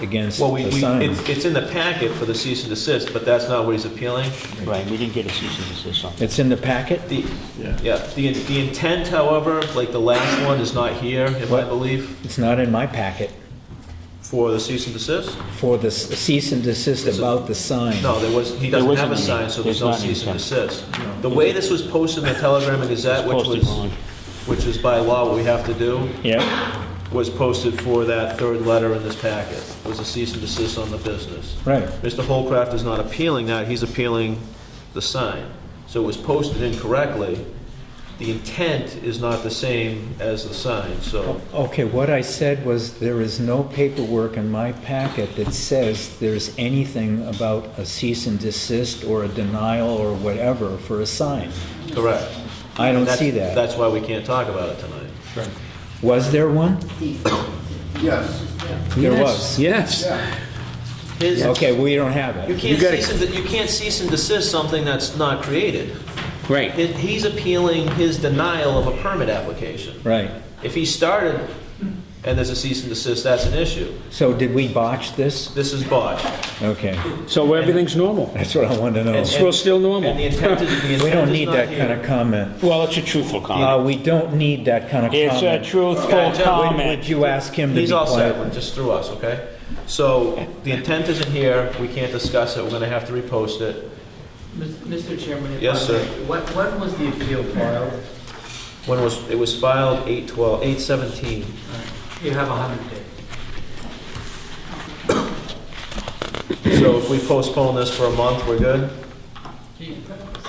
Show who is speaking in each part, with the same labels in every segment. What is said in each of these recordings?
Speaker 1: against
Speaker 2: Well, we,
Speaker 1: the
Speaker 2: we,
Speaker 1: sign.
Speaker 2: it's, it's in the packet for the cease and desist, but that's not what he's appealing.
Speaker 3: Right, we didn't get a cease and desist on that.
Speaker 1: It's in the packet?
Speaker 2: The, yeah, the, the intent, however, like the last one is not here, if I
Speaker 1: What?
Speaker 2: believe,
Speaker 1: It's not in my packet
Speaker 2: for the cease and desist.
Speaker 1: for the s- cease and desist
Speaker 2: It's a-
Speaker 1: about the sign.
Speaker 2: No, there was, he doesn't have
Speaker 3: wasn't
Speaker 2: a
Speaker 3: any.
Speaker 2: sign, so there's
Speaker 3: There's
Speaker 2: no
Speaker 3: not any
Speaker 2: cease and
Speaker 3: sign.
Speaker 2: desist. The way this was posted in the Telegram and Gazette,
Speaker 3: It's
Speaker 2: which
Speaker 3: posted
Speaker 2: was,
Speaker 3: wrong.
Speaker 2: which is by law what we have to do,
Speaker 1: Yeah,
Speaker 2: was posted for that third letter in this packet, was a cease and desist on the business.
Speaker 1: right.
Speaker 2: Mr. Holcraft is not appealing that, he's appealing the sign. So it was posted incorrectly. The intent is not the same as the sign, so
Speaker 1: Okay, what I said was there is no paperwork in my packet that says there's anything about a cease and desist or a denial or whatever for a sign.
Speaker 2: correct.
Speaker 1: I don't
Speaker 2: That's-
Speaker 1: see that.
Speaker 2: That's why we can't talk about it tonight.
Speaker 1: Was there one?
Speaker 4: Yes.
Speaker 1: There was.
Speaker 5: Yes.
Speaker 2: His-
Speaker 1: Okay, we don't have
Speaker 2: You
Speaker 1: it.
Speaker 2: can't
Speaker 5: gotta-
Speaker 2: cease and, de- you can't cease and desist something that's not created.
Speaker 5: Right.
Speaker 2: He- He's appealing his denial of a permit application.
Speaker 1: Right.
Speaker 2: If he started and there's a cease and desist, that's an issue.
Speaker 1: So did we botch this?
Speaker 2: This is botched.
Speaker 1: Okay,
Speaker 5: So everything's normal.
Speaker 1: that's what I want to know.
Speaker 2: And-
Speaker 5: It's still- still normal.
Speaker 2: And the intent is, the
Speaker 1: We
Speaker 2: intent
Speaker 1: don't
Speaker 2: is
Speaker 1: need
Speaker 2: not
Speaker 1: that kind
Speaker 2: here.
Speaker 1: of comment.
Speaker 3: Well, it's a truthful comment.
Speaker 1: Uh, we don't need that kind of
Speaker 3: It's a
Speaker 1: comment.
Speaker 3: truthful
Speaker 2: Gotcha.
Speaker 1: Would
Speaker 3: comment.
Speaker 1: you ask him to be
Speaker 2: He's all set,
Speaker 1: quiet?
Speaker 2: we're just through us, okay? So the intent isn't here, we can't discuss it, we're gonna have to repost it.
Speaker 6: Mr. Chairman? if I
Speaker 2: Yes, sir.
Speaker 6: may, When, when was the appeal filed?
Speaker 2: When was, it was filed eight twelve, eight seventeen.
Speaker 6: You have 100 days.
Speaker 2: So if we postpone this for a month, we're good?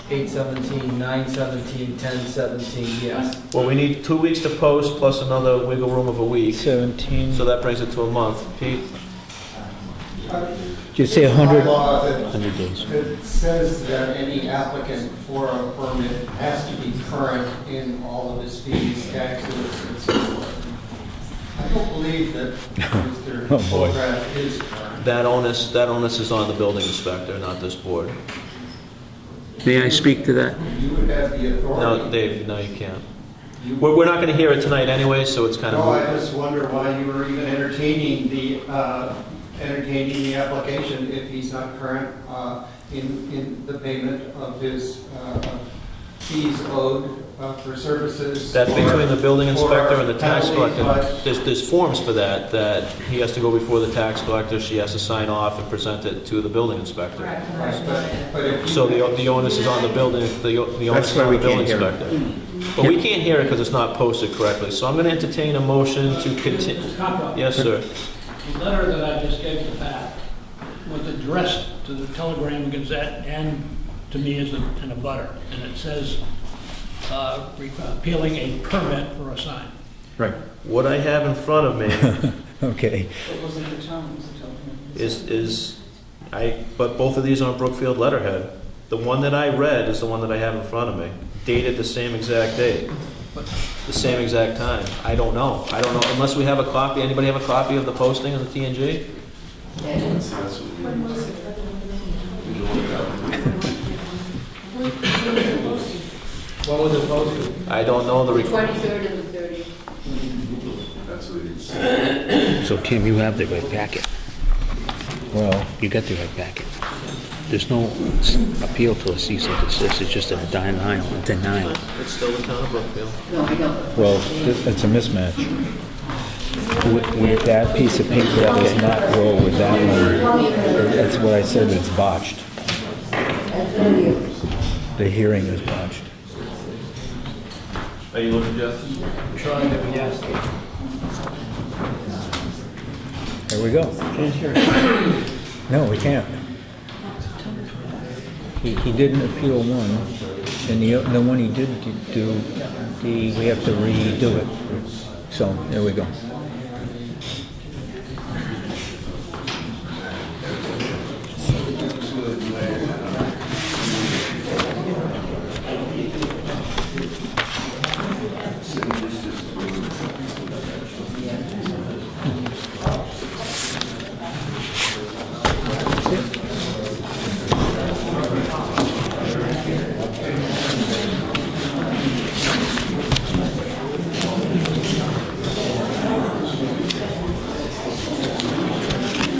Speaker 6: 817, 917, 1017, yes.
Speaker 2: Well, we need two weeks to post plus another wiggle room of a week,
Speaker 1: Seventeen,
Speaker 2: so that brings it to a month. Pete?
Speaker 1: did you say a hundred?
Speaker 4: By law, that-
Speaker 3: 100 days.
Speaker 4: that says that any applicant for a permit has to be current in all of his fees, taxes, and so forth. I don't believe that Mr.
Speaker 1: Oh, boy.
Speaker 4: Holcraft is current.
Speaker 2: That onus, that onus is on the building inspector, not this board.
Speaker 5: May I speak to that?
Speaker 4: You would have the
Speaker 2: No,
Speaker 4: authority.
Speaker 2: Dave, no, you can't.
Speaker 4: You-
Speaker 2: We're, we're not gonna hear it tonight anyway, so it's kind
Speaker 4: No, I
Speaker 2: of,
Speaker 4: just wonder why you were even entertaining the, uh, entertaining the application if he's not current uh, in, in the payment of his uh, fees owed uh, for services.
Speaker 2: that's
Speaker 4: or-
Speaker 2: between the building inspector and the tax
Speaker 4: or
Speaker 2: collector.
Speaker 4: penalties,
Speaker 2: There's, there's forms for that, that he has to go before the tax collector, she has to sign off and present it to the building inspector.
Speaker 4: but- right, But but if you.
Speaker 2: So the, the onus is on the building, the o- the
Speaker 1: That's
Speaker 2: onus is
Speaker 1: why
Speaker 2: on
Speaker 1: we
Speaker 2: the building
Speaker 1: can't hear
Speaker 2: inspector. But we can't hear it because it's not posted correctly, so I'm gonna entertain a motion to continue.
Speaker 7: Mr. Cockrell,
Speaker 2: Yes, sir.
Speaker 7: The letter that I just gave to Pat was addressed to the Telegram Gazette and to me as a, and a butter. And it says, uh, re- appealing a permit for a sign.
Speaker 1: Right.
Speaker 2: What I have in front of me
Speaker 1: Okay,
Speaker 8: It wasn't the town, it was the telephone.
Speaker 2: is, is, I, but both of these are on Brookfield letterhead. The one that I read is the one that I have in front of me, dated the same exact date, the same exact time. I don't know, I don't know, unless we have a copy, anybody have a copy of the posting of the TNG?
Speaker 6: What was it posted?
Speaker 2: I don't know the requ-
Speaker 8: Twenty-third and the thirtieth.
Speaker 3: So Tim, you have the right packet.
Speaker 1: well,
Speaker 3: You got the right packet. There's no s- appeal to a cease and desist, it's just a denial, a denial.
Speaker 2: it's still the town of Brookfield.
Speaker 8: No, I know.
Speaker 1: well, th- it's a mismatch. With, with that piece of paper, that does not roll with that one. That's what I said, it's botched. The hearing is botched.
Speaker 2: Are you looking, Jeff?
Speaker 6: Trying to, yes.
Speaker 1: There we go. No, we can't. He, he didn't appeal one, and the, o- the one he did do, the, we have to redo it. So, there we go.